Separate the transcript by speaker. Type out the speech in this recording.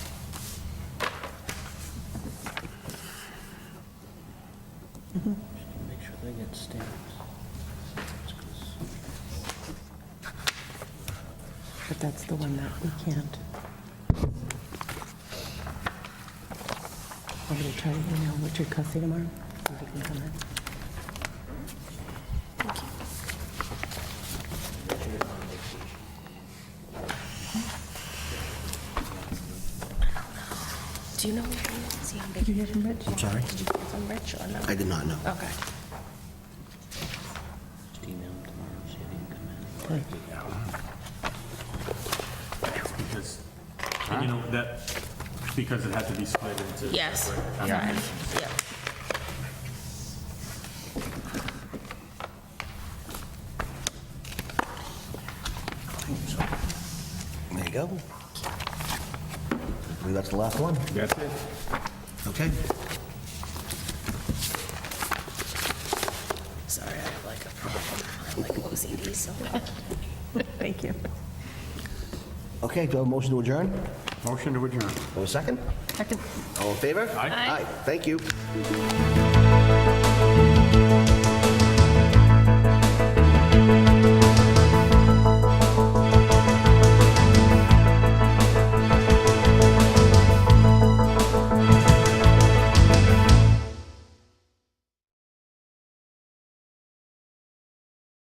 Speaker 1: Make sure they get stamps.
Speaker 2: But that's the one that we can't. I'm going to try to email Richard Cussy tomorrow. see if he can come in.
Speaker 3: Do you know where he is? Did you hear from Rich? I'm
Speaker 1: sorry?
Speaker 3: Did you hear from Rich or not?
Speaker 4: I did not know.
Speaker 3: Okay.
Speaker 1: Just email them tomorrow, see if they can come in.
Speaker 5: Because, you know, that, because it had to be split into.
Speaker 3: Yes.
Speaker 5: separate
Speaker 3: Yeah.
Speaker 5: applications.
Speaker 3: Yeah.
Speaker 4: There you go. I believe that's the last one.
Speaker 5: That's it.
Speaker 4: Okay.
Speaker 3: Sorry, I have like a problem. I have like OCD so bad.
Speaker 2: Thank you.
Speaker 4: Okay, do I have a motion to adjourn?
Speaker 5: Motion to adjourn.
Speaker 4: Or a second?
Speaker 3: Second.
Speaker 4: All in favor? Aye,
Speaker 5: Aye.
Speaker 4: thank you.